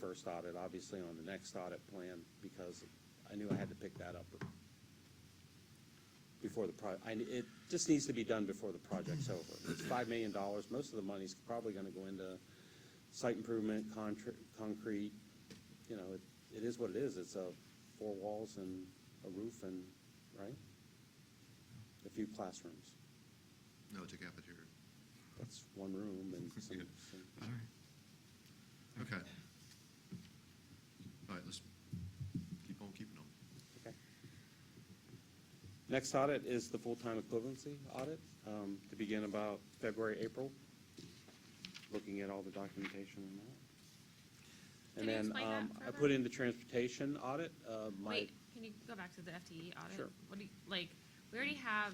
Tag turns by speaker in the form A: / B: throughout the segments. A: first audit, obviously on the next audit plan, because I knew I had to pick that up before the pro, I, it just needs to be done before the project's over. It's five million dollars, most of the money's probably gonna go into site improvement, contra, concrete, you know, it, it is what it is, it's a four walls and a roof and, right? A few classrooms,
B: No, it's a cafeteria.
A: that's one room and some,
B: Yeah.
A: some-
B: All right. Okay. All right, let's keep on keeping on.
A: Okay. Next audit is the full-time equivalency audit, um, to begin about February, April, looking at all the documentation and that.
C: Can you
A: And then,
C: explain that
A: um, I
C: further?
A: put in the transportation audit, uh, my,
C: Wait, can you go back to the FTE audit?
A: Sure.
C: What do you, like, we already have,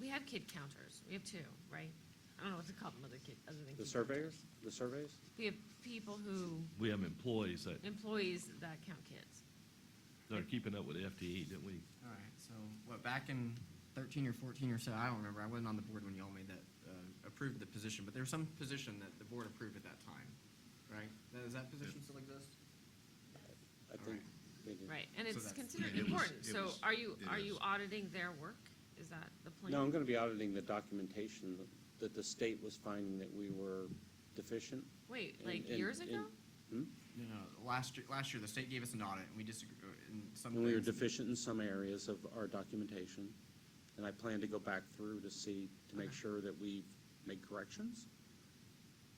C: we have kid counters, we have two, right? I don't know what to call them, other kid, other than.
A: the
C: kid
A: surveyors,
C: counters.
A: the surveys,
C: We have people who,
D: We have employees that,
C: employees that count kids.
D: that are keeping up with FTE, didn't E, we?
E: All right, so what, back in thirteen or fourteen or so, I don't remember, I wasn't on the board when y'all made that, uh, approved the position, but there was some position that the board approved at that time, right? Now, Does that position still exist?
A: I think. they do.
C: Right, and
E: So
C: it's
E: that's-
C: considered
B: Yeah, it was-
C: important,
B: it
C: so
B: was-
C: are you,
B: it
C: are you
B: is.
C: auditing their work? Is that the plan?
A: No, I'm gonna be auditing the documentation that- that the state was finding that we were deficient.
C: Wait,
A: in-
C: like
A: in-
C: years
A: in-
C: ago?
A: Hmm?
E: No, no, last year, last year, the state gave us an audit, and we disagreed, in some.
A: And we were
E: things-
A: deficient in some areas of our documentation, and I plan to go back through to see, to make sure that we make corrections,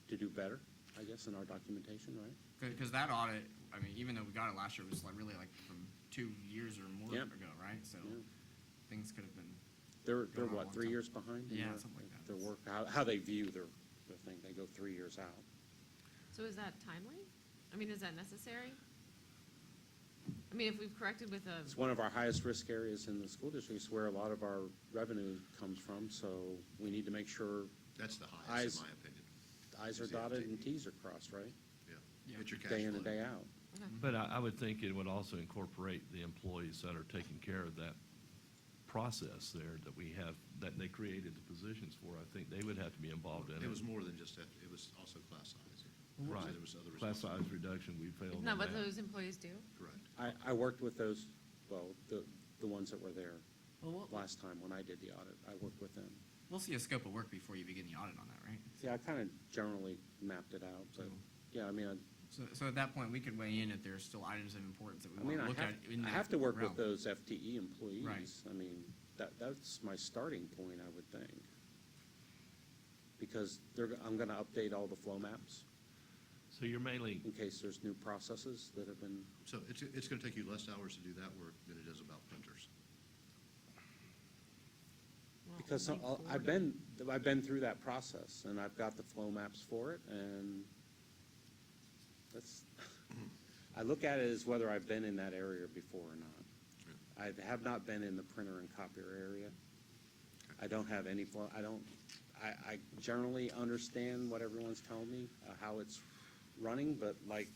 A: to do better, I guess, in our documentation, right?
E: Because that audit, I mean, even though we got it last year, it was like really like from two years or more
A: Yep.
E: ago, right? So
A: Yeah.
E: things could have been.
A: They're, they're
E: Going on a
A: what,
E: long
A: three
E: time.
A: years behind? in
E: Yeah,
A: their-
E: something like that.
A: Their work, how, how they view their, their thing, they go three years out.
C: So is that timely? I mean, is that necessary? I mean, if we've corrected with a.
A: It's one of our highest risk areas in the school district, it's where a lot of our revenue comes from, so we need to make sure
B: That's the highest,
A: Eyes-
B: in my opinion.
A: I's are
B: Is it-
A: dotted and T's are crossed, right?
B: Yeah.
E: Yeah.
B: It's your cash
A: Day in and
B: flow.
A: day out.
C: Okay.
D: But I, I would think it would also incorporate the employees that are taking care of that process there that we have, that they created the positions for. I think they would have to be involved in it.
B: It was more than just that, it was also class size. So
D: Right.
B: there was other
D: Class size
B: responsibilities.
D: reduction, we failed
C: Isn't that
D: on
C: what
D: that.
C: those employees do?
B: Correct.
A: I, I worked with those, well, the, the ones that were there
E: Well, we'll,
A: last time when I did the audit, I worked with them.
E: we'll see a scope of work before you begin the audit on that, right?
A: See, I kind of generally mapped it out, but,
E: Mm-hmm.
A: yeah, I mean, I-
E: So, so at that point, we could weigh in if there's still items of importance that we
A: I mean,
E: want to
A: I
E: look at
A: have,
E: in
A: I
E: that
A: have to work
E: realm.
A: with those FTE employees.
E: Right.
A: I mean, that, that's my starting point, I would think. Because they're, I'm gonna update all the flow maps
D: So you're mainly,
A: in case there's new processes that have been,
B: So it's, it's going to take you less hours to do that work than it is about printers.
C: Well,
A: because
C: only
A: I'll- I've
C: four.
A: been, I've been through that process and I've got the flow maps for it and that's, I look at it as whether I've been in that area before or not. I have not been in the printer and copier area. I don't have any, fl- I don't, I, I generally understand what everyone's telling me, uh, how it's running, but like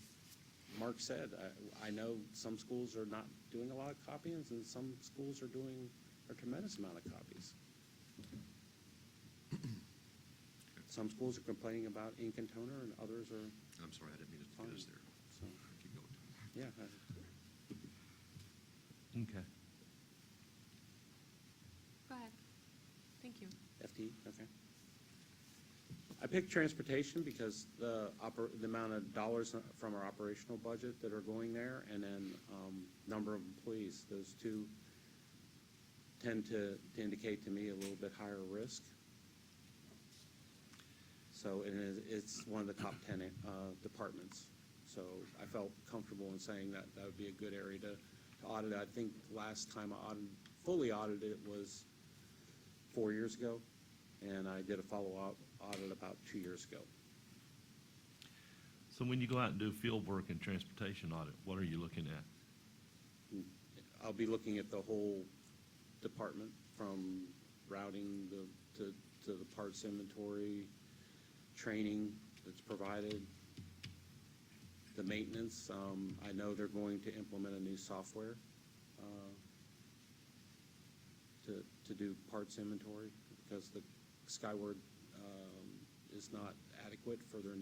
A: Mark said, I, I know some schools are not doing a lot of copyings and some schools are doing a tremendous amount of copies. Some schools are complaining about ink and toner and others are,
B: I'm sorry, I didn't mean to get us there.
A: so,
B: Keep going.
A: yeah. I-
D: okay.
C: Go ahead. Thank you.
A: FTE, okay. I picked transportation because the oper, the amount of dollars from our operational budget that are going there, and then, um, number of employees, those two tend to, to indicate to me a little bit higher risk. So it is, it's one of the top ten, uh, departments, so I felt comfortable in saying that that would be a good area to, to audit. I think last time I audited, fully audited it was four years ago, and I did a follow-up audit about two years ago.
D: So when you go out and do field work and transportation audit, what are you looking at?
A: I'll be looking at the whole department, from routing the, to, to the parts inventory, training that's provided, the maintenance, um, I know they're going to implement a new software, uh, to, to do parts inventory, because the Skyward, um, is not adequate for their